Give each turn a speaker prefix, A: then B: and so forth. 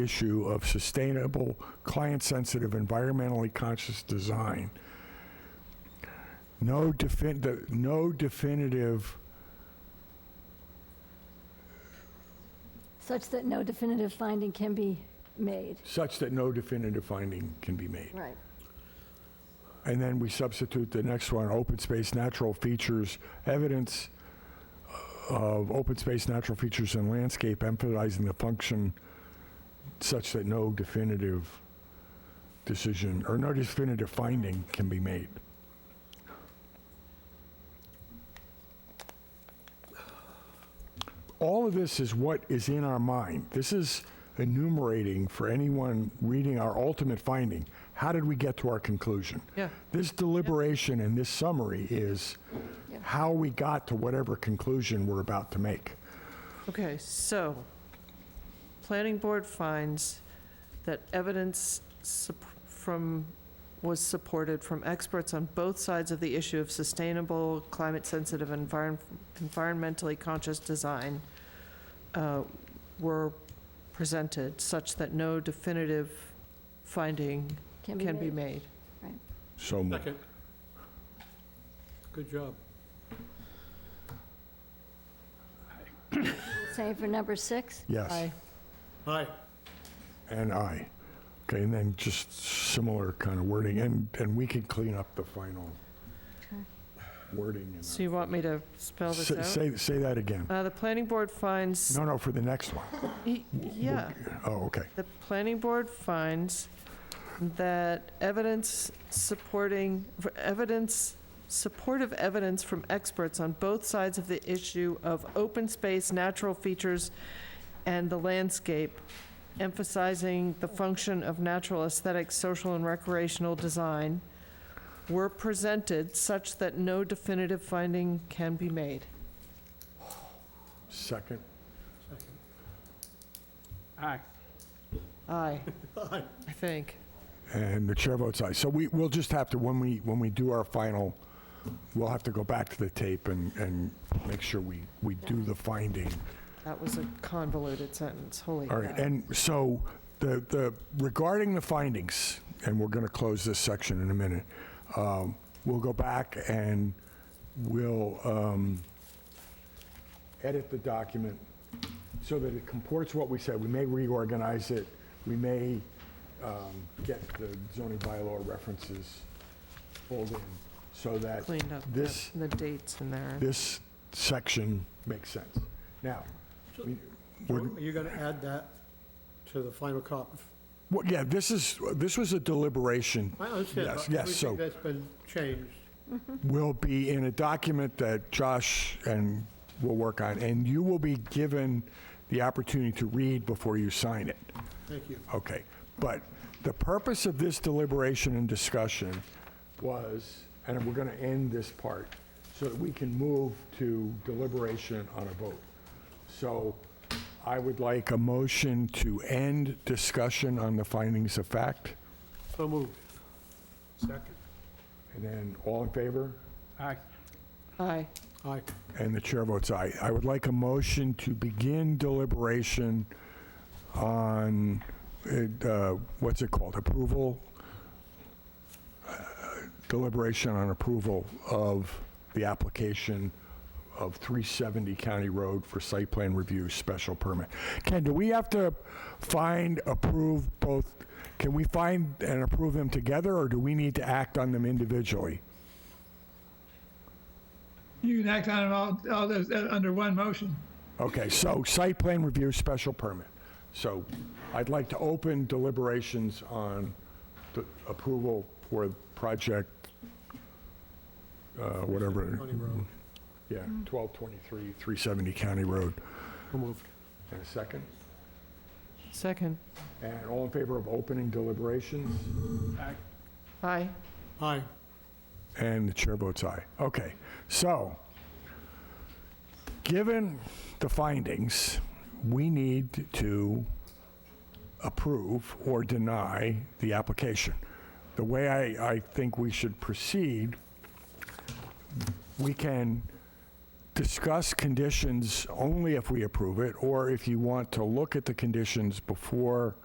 A: issue of sustainable, client-sensitive, environmentally conscious design. No defin, the- no definitive,
B: such that no definitive finding can be made.
A: such that no definitive finding can be made.
B: Right.
A: And then we substitute the next one, open space, natural features, evidence of open space, natural features and landscape, emphasizing the function such that no definitive decision, or no definitive finding can be made. All of this is what is in our mind. This is enumerating for anyone reading our ultimate finding. How did we get to our conclusion?
C: Yeah.
A: This deliberation and this summary is how we got to whatever conclusion we're about to make.
C: Okay, so, planning board finds that evidence sup- from, was supported from experts on both sides of the issue of sustainable, climate-sensitive, environ- environmentally conscious design uh, were presented such that no definitive finding can be made.
A: So moved.
D: Second. Good job.
B: Same for number six?
A: Yes,
D: Aye.
A: and I. Okay, and then just similar kind of wording, and, and we can clean up the final
B: Okay.
A: wording. in
C: So you want me to spell
A: our-
C: this
A: Say,
C: out?
A: say- say that again.
C: Uh, The planning board finds,
A: No, no, for the next one.
C: y- yeah.
A: Oh, okay.
C: The planning board finds that evidence supporting, evidence, supportive evidence from experts on both sides of the issue of open space, natural features, and the landscape, emphasizing the function of natural aesthetic, social, and recreational design, were presented such that no definitive finding can be made.
A: Second,
E: Aye.
C: Aye,
D: Aye.
C: I think.
A: and the chair votes aye. So we, we'll just have to, when we, when we do our final, we'll have to go back to the tape and, and make sure we, we do the finding
C: That was a convoluted sentence, holy
A: All right,
C: cow.
A: and so the, the, regarding the findings, and we're going to close this section in a minute, um, we'll go back and we'll um, edit the document so that it comports what we said. We may reorganize it, we may um, get the zoning bylaw references pulled in so that
C: Cleaned up the
A: this,
C: the dates in there.
A: this section makes sense. Now, we- we're,
D: You're going to add that to the final copy?
A: Well, yeah, this is, this was a deliberation,
D: I understand.
A: Yes,
D: but
A: yes, so-
D: Everything that's been changed.
A: will be in a document that Josh and will work on, and you will be given the opportunity to read before you sign it.
D: Thank you.
A: Okay, but the purpose of this deliberation and discussion was, and we're gonna end this part, so that we can move to deliberation on a vote. So I would like a motion to end discussion on the findings of fact,
D: So moved.
E: Second.
A: and then all in favor?
E: Aye.
C: Aye.
D: Aye.
A: And the chair votes aye. I would like a motion to begin deliberation on, it, uh, what's it called, approval? Uh, Deliberation on approval of the application of 370 County Road for site plan review special permit. Ken, do we have to find, approve both, can we find and approve them together, or do we need to act on them individually?
F: You can act on it all, all those, uh, under one motion.
A: Okay, so site plan review, special permit. So I'd like to open deliberations on the approval for project, uh, whatever,
D: County Road.
A: yeah, 1223, 370 County Road.
D: So moved.
A: And a second?
C: Second.
A: And all in favor of opening deliberations?
E: Aye.
C: Aye.
D: Aye.
A: And the chair votes aye. Okay, so, given the findings, we need to approve or deny the application. The way I, I think we should proceed, we can discuss conditions only if we approve it, or if you want to look at the conditions before